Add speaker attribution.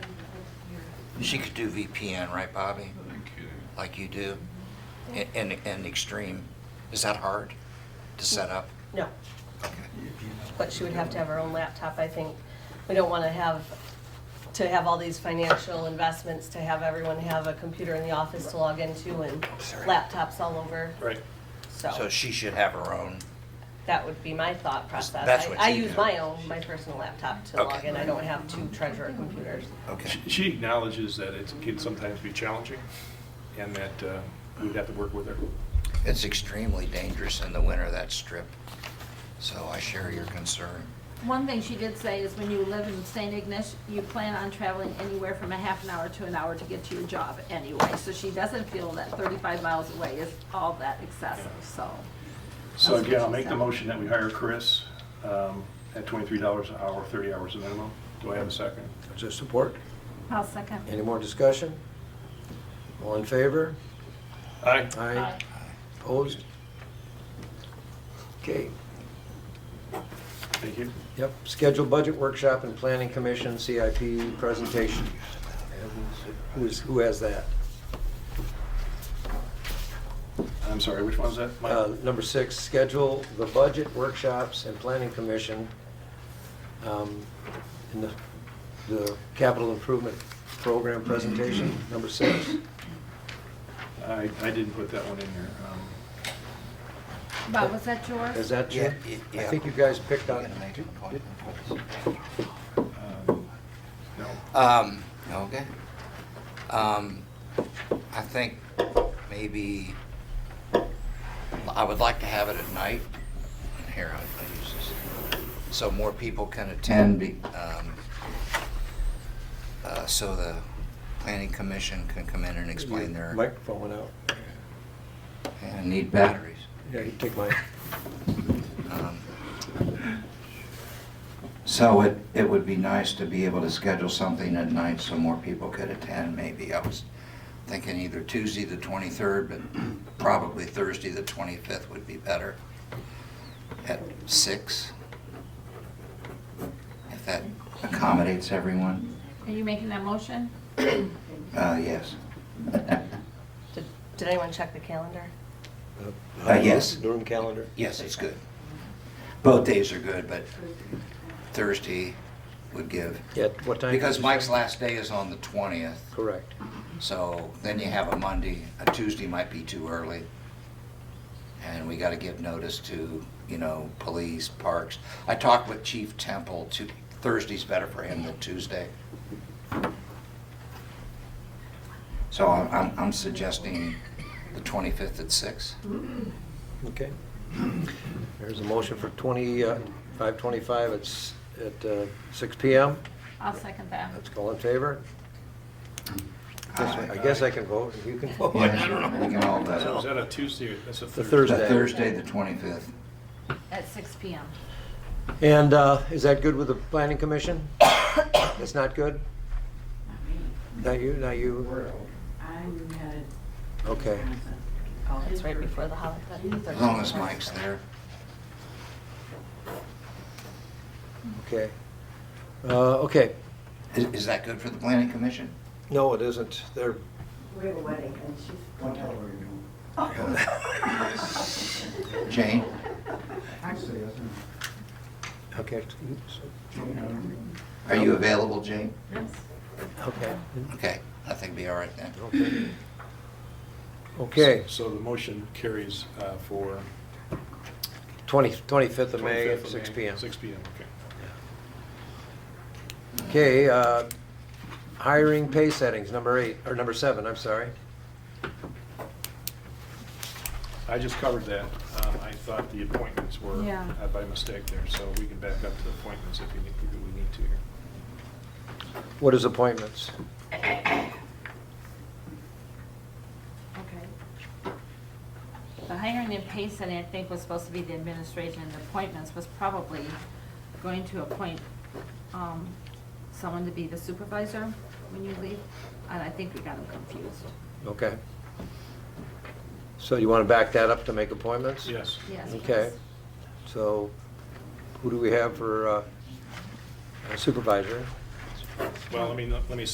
Speaker 1: She could do VPN, right, Bobby?
Speaker 2: No kidding.
Speaker 1: Like you do? A- And, and Extreme, is that hard to set up?
Speaker 3: No,
Speaker 1: Okay.
Speaker 3: but she would have to have her own laptop, I think. We don't want to have, to have all these financial investments, to have everyone have a computer in the office to log into and
Speaker 1: Sorry.
Speaker 3: laptops all over,
Speaker 4: Right.
Speaker 3: so
Speaker 1: So she should have her own,
Speaker 3: that would be my thought process.
Speaker 1: That's
Speaker 3: I-
Speaker 1: what
Speaker 3: I
Speaker 1: you
Speaker 3: use
Speaker 1: do.
Speaker 3: my own, my personal laptop to log
Speaker 1: Okay.
Speaker 3: in, I don't have two treasurer computers.
Speaker 1: okay.
Speaker 4: She- She acknowledges that it can sometimes be challenging and that uh, we'd have to work with her.
Speaker 1: It's extremely dangerous in the winter, that strip, so I share your concern.
Speaker 5: One thing she did say is when you live in St. Ignace, you plan on traveling anywhere from a half an hour to an hour to get to your job anyway. So she doesn't feel that 35 miles away is all that excessive, so.
Speaker 4: So again, I'll make the motion that we hire Chris um, at $23 an hour, 30 hours a minimum. Do I have a second?
Speaker 6: Is there support?
Speaker 5: I'll second.
Speaker 6: Any more discussion? All in favor?
Speaker 4: Aye.
Speaker 6: Aye. Opposed? Okay,
Speaker 4: Thank you.
Speaker 6: yep, scheduled budget workshop and planning commission CIP presentation. Who's, who has that?
Speaker 4: I'm sorry, which one was that? Mike?
Speaker 6: Uh, Number six, schedule the budget workshops and planning commission um, in the, the capital improvement program presentation, number six.
Speaker 4: I I didn't put that one in there. Um,
Speaker 5: Bob, was that yours?
Speaker 6: Is that you?
Speaker 1: Yeah, yeah.
Speaker 6: I think you guys picked
Speaker 1: You
Speaker 6: up.
Speaker 1: gonna make an appointment?
Speaker 4: um, No,
Speaker 1: Um, okay. Um, I think maybe, I would like to have it at night. Here, I'll I'll use this. So more people can attend, be- um, uh, so the planning commission can come in and explain their,
Speaker 6: Microphone went out.
Speaker 1: and need batteries.
Speaker 6: Yeah, you take mine.
Speaker 1: Um, So it, it would be nice to be able to schedule something at night so more people could attend, maybe. I was thinking either Tuesday, the 23rd, but probably Thursday, the 25th would be better at six. If that accommodates everyone,
Speaker 5: Are you making that motion?
Speaker 1: uh, yes.
Speaker 3: Did Did anyone check the calendar?
Speaker 1: Uh, yes.
Speaker 6: Room calendar.
Speaker 1: Yes, it's good. Both days are good, but Thursday would give.
Speaker 6: Yeah, what time?
Speaker 1: Because
Speaker 6: did you
Speaker 1: Mike's
Speaker 6: say?
Speaker 1: last day is on the 20th,
Speaker 6: Correct.
Speaker 1: so then you have a Monday, a Tuesday might be too early. And we gotta give notice to, you know, police, parks. I talked with Chief Temple, Tu- Thursday's better for him than Tuesday. So I'm, I'm- I'm suggesting the 25th at six.
Speaker 6: Okay. There's a motion for 20, uh, 5:25 at s- at uh, 6 PM.
Speaker 5: I'll second that.
Speaker 6: Let's call in favor. Guess I I guess I can vote, and you can vote.
Speaker 1: Uh, Yeah, We can all
Speaker 4: So is
Speaker 1: vote.
Speaker 4: that a Tuesday or that's a
Speaker 6: The
Speaker 4: Thursday?
Speaker 1: The
Speaker 6: Thursday.
Speaker 1: Thursday, the 25th.
Speaker 5: At 6 PM.
Speaker 6: And uh, is that good with the planning commission? That's not good? Not you, not you?
Speaker 7: I'm headed.
Speaker 6: Okay.
Speaker 3: Oh, it's right before the holiday.
Speaker 1: As long as Mike's there.
Speaker 6: Okay. Uh, Okay.
Speaker 1: Is, is that good for the planning commission?
Speaker 6: No, it isn't. They're,
Speaker 7: We have a wedding and she's.
Speaker 8: Don't tell her you
Speaker 6: Oh,
Speaker 1: Jane?
Speaker 8: don't. Say it.
Speaker 6: okay,
Speaker 1: Are you available, Jane?
Speaker 6: okay.
Speaker 1: Okay, I think be all right then.
Speaker 6: Okay. Okay,
Speaker 4: So the motion carries uh, for
Speaker 6: 20 25th of
Speaker 4: 25th
Speaker 6: May at
Speaker 4: of
Speaker 6: six
Speaker 4: May,
Speaker 6: PM.
Speaker 4: 6 PM, okay.
Speaker 6: Okay, uh, hiring pay settings, number eight, or number seven, I'm sorry.
Speaker 4: I just covered that. Um, I thought the appointments were
Speaker 5: Yeah.
Speaker 4: uh, by mistake there, so we can back up to appointments if we need, if we need to here.
Speaker 6: What is appointments?
Speaker 5: Okay. The hiring and pay setting, I think, was supposed to be the administration, and the appointments was probably going to appoint um, someone to be the supervisor when you leave, and I think we got them confused.
Speaker 6: Okay. So you want to back that up to make appointments?
Speaker 4: Yes.
Speaker 5: Yes.
Speaker 6: Okay. So who do we have for uh, supervisor?
Speaker 4: Well, I mean, let me